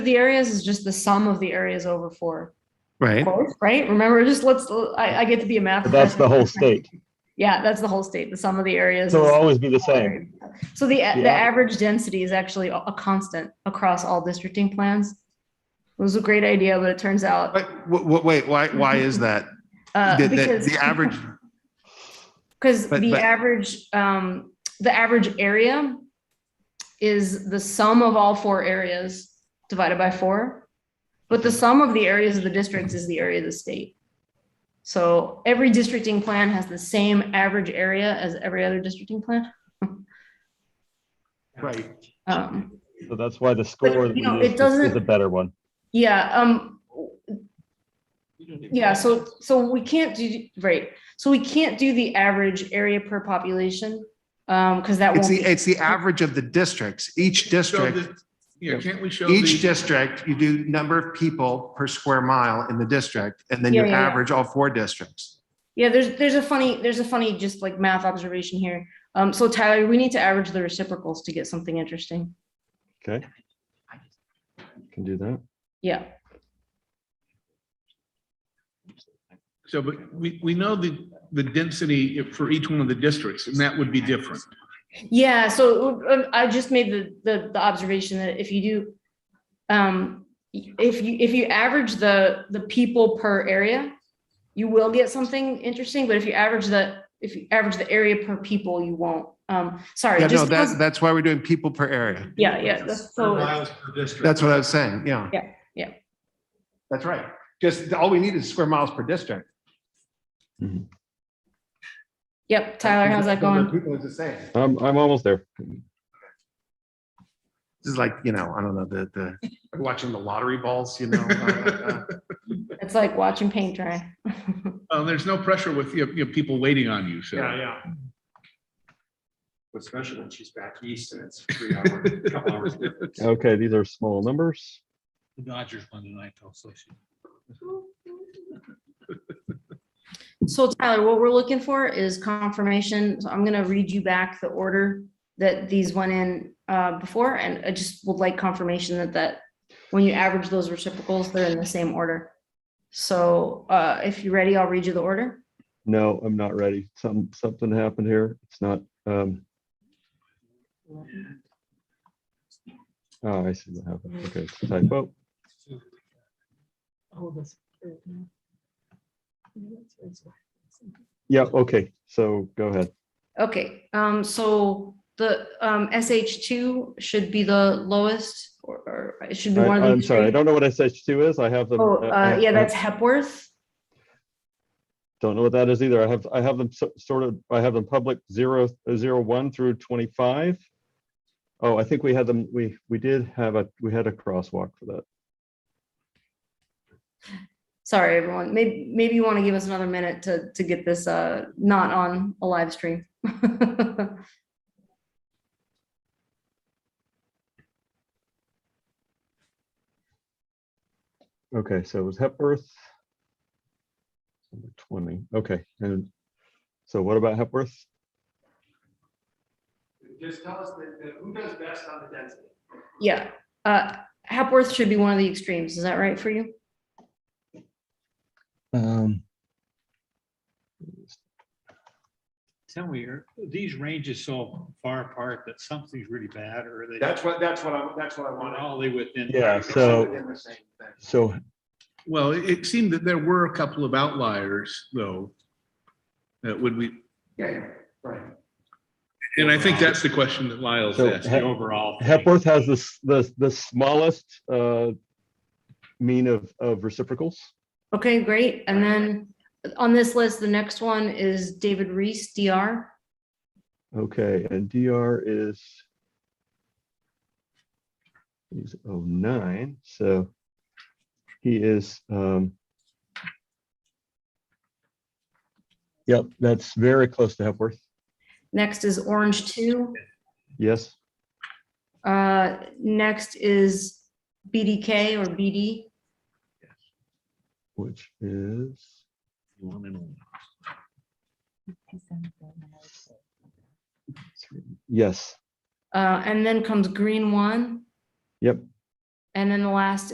the areas is just the sum of the areas over four, Right. quotes, right? Remember, just let's, I, I get to be a math. But that's the whole state. Yeah, that's the whole state, the sum of the areas. So is- it'll always be the same. So the, the Yeah. average density is actually a a constant across all districting plans. It was a great idea, but it turns out, But wait, why why is that? uh, The- the- because. the average Because But- the but- average, um, the average area is the sum of all four areas divided by four. But the sum of the areas of the districts is the area of the state. So every districting plan has the same average area as every other districting plan. Right. Um, So that's why the score that we you know, use it is- is doesn't- a better one. yeah, um, yeah, so, so we can't do, right, so we can't do the average area per population. Um, because that won't, It's the be- it's the average of the districts. Each district, Yeah, can't we show each the, district, you do number of people per square mile in the district, and then you Yeah, yeah, yeah. average all four districts. yeah, there's, there's a funny, there's a funny just like math observation here. Um, so Tyler, we need to average the reciprocals to get something interesting. Okay. Can do that. Yeah, so, but we, we know the, the density if- for each one of the districts, and that would be different. yeah, so uh, I just made the, the, the observation that if you do. Um, if you, if you average the, the people per area, you will get something interesting, but if you average the, if you average the area per people, you won't. Um, sorry, Yeah, no, just, that because- that's why we're doing people per area. yeah, yeah, that's so, That's what I was saying, yeah. Yeah, yeah. That's right. Just all we need is square miles per district. yep, Tyler, how's that going? People is the same. I'm, I'm almost there. This is like, you know, I don't know, the the watching the lottery balls, you know. uh, uh, It's like watching paint dry. Uh, there's no pressure with, you know, you know, people waiting on you, Yeah, so. yeah. Especially when she's back east and it's three hours, couple hours. difference. Okay, these are small numbers. Dodgers won tonight, also. So Tyler, what we're looking for is confirmation. So I'm gonna read you back the order that these went in uh, before, and I just would like confirmation that that, when you average those reciprocals, they're in the same order. So uh, if you're ready, I'll read you the order. No, I'm not ready. Some, something happened here. It's not, um. Oh, I see what happened. Okay, it's a typo. Yeah, okay, so go ahead. Okay, um, so the um, SH2 should be the lowest, or- or it should be I- one of them. I'm sorry, I three. don't know what SH2 is. I have them. Oh, I- uh, I- yeah, I- that's Hepworth. Don't know what that is either. I have, I have them so- sort of, I have them public zero, zero one through twenty-five. Oh, I think we had them, we, we did have a, we had a crosswalk for that. Sorry, everyone. Maybe, maybe you want to give us another minute to, to get this, uh, not on a live stream. Okay, so it was Hepworth. Number Twenty, okay, and so what about Hepworth? Just tell us that, that who does best on the density? Yeah, uh, Hepworth should be one of the extremes. Is that right for you? Um, Tell me, are these ranges so far apart that something's really bad or are they? That's what, that's what I, that's what I Not want. all the way within. Yeah, so, so, Well, it it seemed that there were a couple of outliers, though. That would we, Yeah, yeah, right. and I think that's the question that Lyle's So, asked. The overall. thing. Hepworth has the, s- the, the smallest, uh, mean of, of reciprocals. Okay, great. And then on this list, the next one is David Reese, DR. Okay, and DR is he's oh nine, so he is um Yep, that's very close to Hepworth. Next is Orange Two. Yes, Uh, next is BDK or BD. which is One and all. yes, Uh, and then comes Green One. yep, And then the last